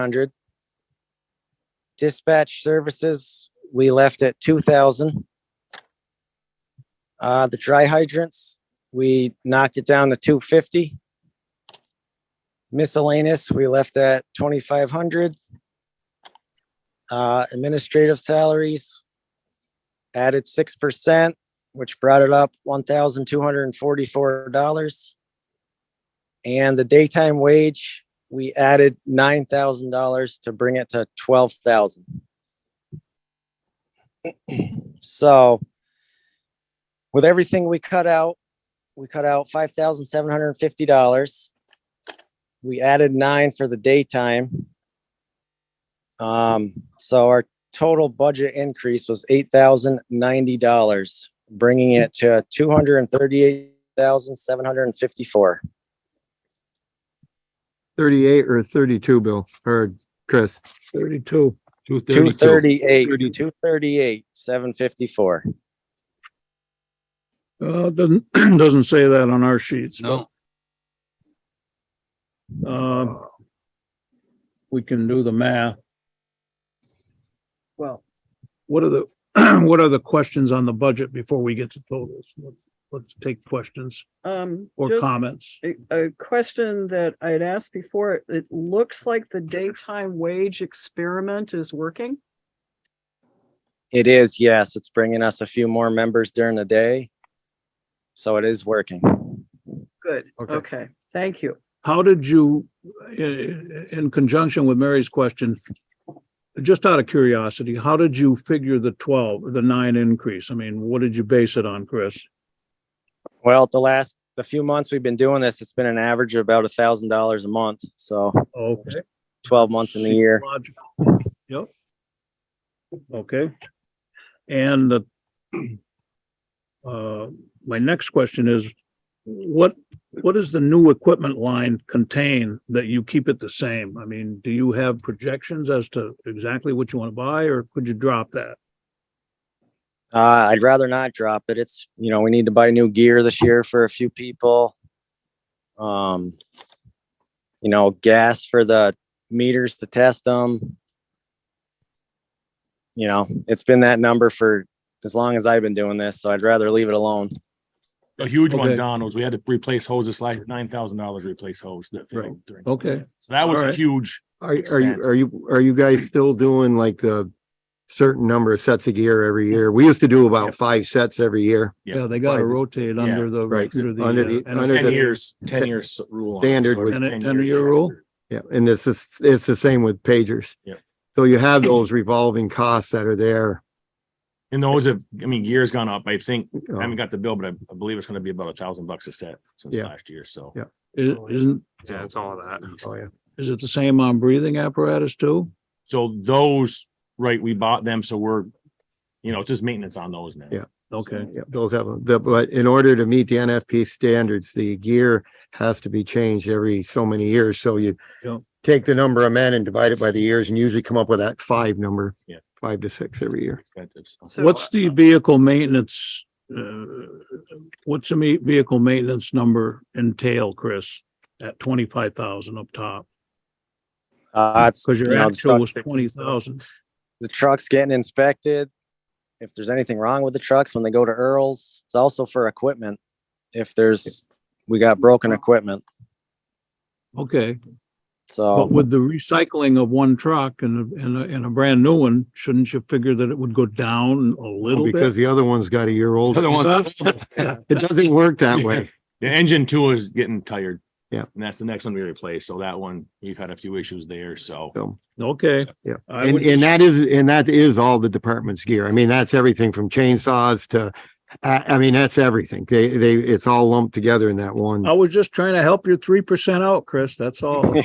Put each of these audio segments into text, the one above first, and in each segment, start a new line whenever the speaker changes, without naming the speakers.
hundred. Dispatch services, we left at two thousand. Uh, the dry hydrants, we knocked it down to two fifty. Miscellaneous, we left at twenty-five hundred. Uh, administrative salaries added six percent, which brought it up one thousand two hundred and forty-four dollars. And the daytime wage, we added nine thousand dollars to bring it to twelve thousand. So with everything we cut out, we cut out five thousand seven hundred and fifty dollars. We added nine for the daytime. Um, so our total budget increase was eight thousand ninety dollars, bringing it to two hundred and thirty-eight thousand seven hundred and fifty-four.
38 or 32, Bill, or Chris? 32.
Two
232.
thirty-eight, two thirty-eight, seven fifty-four.
Uh, it doesn't, doesn't say that on our sheets, but,
No,
uh, we can do the math. Well, what are the, what are the questions on the budget before we get to totals? Let's take questions
Um,
or
just
comments.
a, a question that I had asked before, it looks like the daytime wage experiment is working.
It is, yes, it's bringing us a few more members during the day. So it is working.
Good,
Okay.
okay, thank you.
How did you, in, in conjunction with Mary's question, just out of curiosity, how did you figure the twelve, the nine increase? I mean, what did you base it on, Chris?
Well, the last, the few months we've been doing this, it's been an average of about a thousand dollars a month, so
Okay.
twelve months in the year.
Logical. Yep. Okay. And the uh, my next question is, what, what does the new equipment line contain that you keep it the same? I mean, do you have projections as to exactly what you want to buy or could you drop that?
Uh, I'd rather not drop it. It's, you know, we need to buy new gear this year for a few people. Um, you know, gas for the meters to test them. You know, it's been that number for as long as I've been doing this, so I'd rather leave it alone.
A huge
Okay.
one, Don, was we had to replace hoses, like nine thousand dollars replace hose that failed during.
Okay.
So that was
All
a
right.
huge,
Are, are you, are you, are you guys still doing like the certain number of sets of gear every year? We used to do about
Yep.
five sets every year.
Yeah.
Yeah, they got to
Right.
rotate under the.
Right.
uh,
Under the-
and-
under
ten
the-
years, ten years rule. on it.
standard
So
would-
every
And a-
10
and a
years
year
you
rule?
have to-
Yeah, and this is, it's the same with pagers.
Yep.
So you have those revolving costs that are there.
And those have, I mean, gear's gone up. I think, I haven't
Um,
got the bill, but I I believe it's gonna be about a thousand bucks a set since
Yeah.
last year, so.
Yeah.
i- Isn't,
Yeah, it's all that.
Oh, yeah.
is it the same on breathing apparatus too?
So those, right, we bought them, so we're, you know, it's just maintenance on those now.
Yeah.
Okay.
Yeah, Those have, the- but in order to meet the NFP standards, the gear has to be changed every so many years. So you
Yeah.
take the number of men and divide it by the years and usually come up with that five number.
Yeah.
Five to six every year.
Expensive, so.
So,
What's the vehicle maintenance, uh, what's the me- vehicle maintenance number entail, Chris? At twenty-five thousand up top,
Uh, it's,
because
you
your
know, the
actual was
truck-
twenty thousand.
The truck's getting inspected. If there's anything wrong with the trucks when they go to Earl's, it's also for equipment. If there's, we got broken equipment,
Okay,
Um,
so.
but with the recycling of one truck and, a- and, a- and a brand new one, shouldn't you figure that it would go down a little
Oh, Because
bit?
the other one's got a year old.
Other ones-
It doesn't work that way.
The engine two is getting tired.
Yeah.
And that's the next one we replace. So that one, we've had a few issues there, so.
So,
Okay.
Yeah.
I
and,
would
and
just-
that is, and that is all the department's gear. I mean, that's everything from chainsaws to, I, I mean, that's everything. They, they, it's all lumped together in that one.
I was just trying to help your three percent out, Chris, that's all.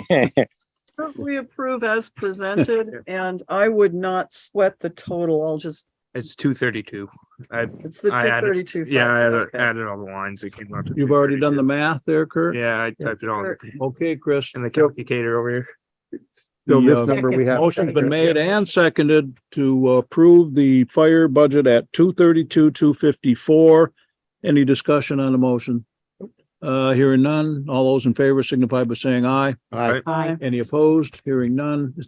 don't we approve as presented, and I would not sweat the total, I'll just,
It's two thirty-two. I,
it's the two
I added-
thirty-two.
yeah, I added, added all the lines that came out. to
You've already done the
232.
math there, Kurt?
Yeah, I typed it all
Okay, Chris.
in the calculator over here.
So
The,
this
uh,
number we have.
Motion's been made and seconded to approve the fire budget at two thirty-two, two fifty-four. Any discussion on the motion? Uh, hearing none, all those in favor signify by saying aye.
All right.
Aye.
Any opposed? Hearing none,